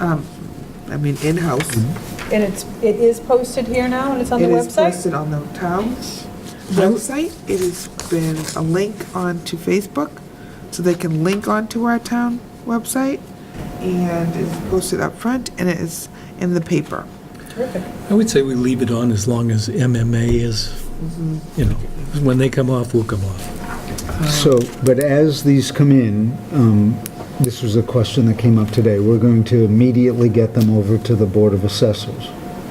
um, I mean, in-house. And it's, it is posted here now, and it's on the It is website? posted on the town's website. It has been a link onto Facebook, so they can link onto our town website. And it's posted up front, and it is in the paper. Terrific. I would say we leave it on as long as MMA is, you know, when they come off, we'll come off. So, but as these come in, um, this was a question that came up today, we're going to immediately get them over to the Board of Assessors.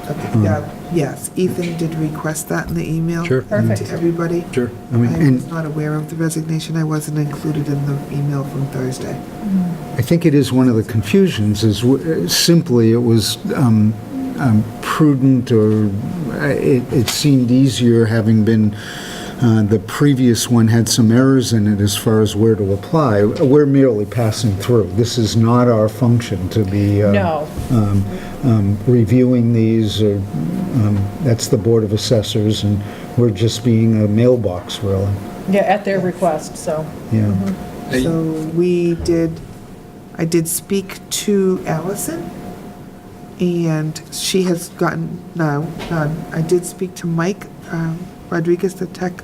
Okay, yeah, Yes, Ethan did request that in the email. Sure. Perfect. To everybody. Sure. I I mean, was and not aware of the resignation. I wasn't included in the email from Thursday. I think it is one of the confusions, is w- simply it was um, um, prudent, or uh, it it seemed easier, having been, uh, the previous one had some errors in it as far as where to apply. We're merely passing through. This is not our function to be. uh, No. um, um, reviewing these, or, um, that's the Board of Assessors, and we're just being a mailbox, really, Yeah, at their request, so. yeah. Hey. So we did, I did speak to Allison, and she has gotten, no, none. I did speak to Mike um, Rodriguez, the tech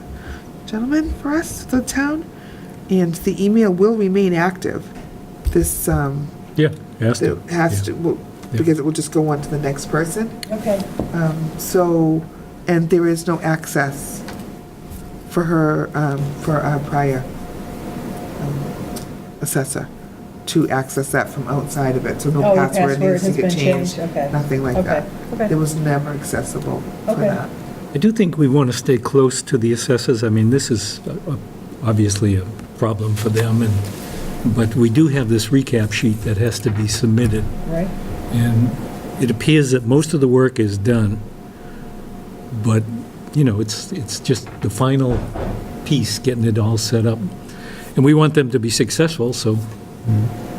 gentleman for us, the town, and the email will remain active. This, um, Yeah, ask it them. has to, will- Yeah. because it will just go on to the next person. Okay. Um, So, and there is no access for her, um, for our prior um, assessor to access that from outside of it, so no Oh, your password password needs to has get been changed. changed, okay. Nothing like Okay, that. okay. It was never accessible for Okay. that. I do think we want to stay close to the assessors. I mean, this is uh, uh, obviously a problem for them, and, but we do have this recap sheet that has to be submitted, Right? and it appears that most of the work is done, but, you know, it's, it's just the final piece, getting it all set up. And we want them to be successful, so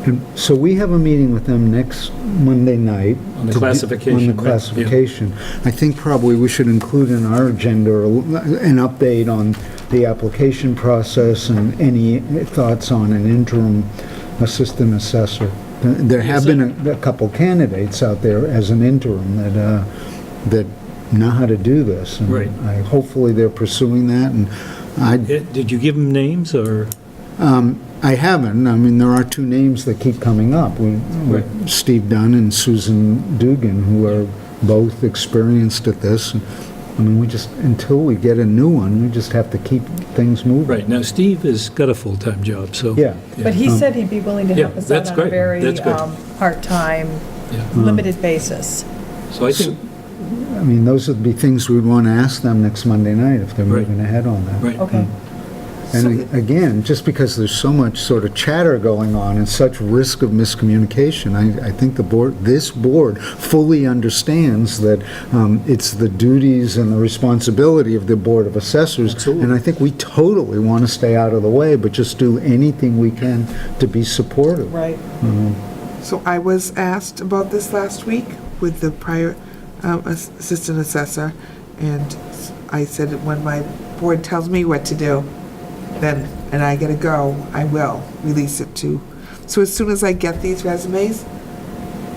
And So we have a meeting with them next Monday night. On the to do- classification, On right? the Yeah. classification. I think probably we should include in our agenda a l- an update on the application process and any thoughts on an interim assistant assessor. There have been a a couple candidates out there as an interim that, uh, that know how to do this. and Right. I- Hopefully, they're pursuing that, and I, Eh, Did you give them names, or? I haven't. I mean, there are two names that keep coming up. We- Right. Steve Dunn and Susan Dugan, who are both experienced at this. I mean, we just, until we get a new one, we just have to keep things moving. Right, now Steve has got a full-time job, so. Yeah. But he said he'd be willing to help Um, Yeah, us out that's on a great. very That's good. um, part-time, Mm-hmm. Yeah. limited basis. So I think, I mean, those would be things we'd want to ask them next Monday night if they're Right. moving ahead on that. right. Mm, Okay. Mm-hmm. And a- again, just because there's so much sort of chatter going on and such risk of miscommunication, I, I think the board, this board fully understands that um, it's the duties and the responsibility of the Board of Assessors. Absolutely. And I think we totally want to stay out of the way, but just do anything we can to be supportive. Right. So I was asked about this last week with the prior um, ass- assistant assessor, and I said, that when my board tells me what to do, then, and I gotta go, I will release it to. So as soon as I get these resumes,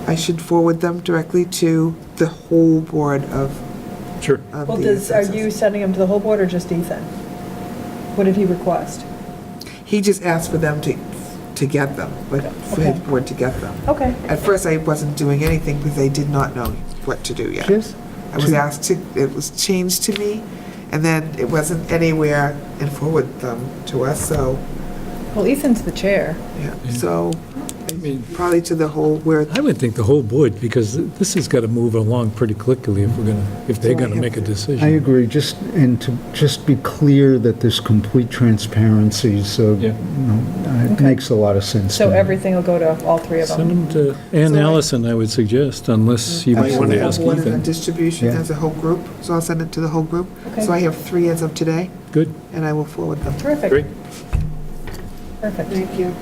I should forward them directly to the whole board of Sure. of Well, the does, are you assessors. sending him to the whole board or just Ethan? What did he request? He just asked for them to, to get them, but for his Okay. board to get them. Okay. At first, I wasn't doing anything because I did not know what to do yet. Yes. I was asked to, it was changed to me, and then it wasn't anywhere and forward them um, to us, so, Well, Ethan's the chair. yeah, so, I mean, probably to the whole, where, I would think the whole board, because this has got to move along pretty quickly if we're going to, if they're So I going to have make a to- decision. I agree, just, and to just be clear that there's complete transparency, so you Yeah. know, it Okay. makes a lot of sense. So to me. everything will go to all three of Send them. them to Ann So I- Allison, I would suggest, unless you I might have want the to Absolutely. ask whole board and the Ethan. distribution Yeah. as a whole group, so I'll send it to the whole group. Okay. So I have three as of today, Good, and I will forward them. great. Terrific, perfect. Thank you.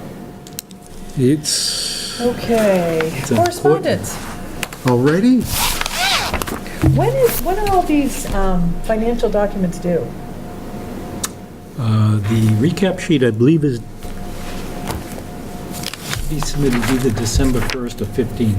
It's, Okay, It's important. correspondence. Already? When is, when are all these um, financial documents due? uh, the recap sheet, I believe, is be submitted either December 1st or 15th.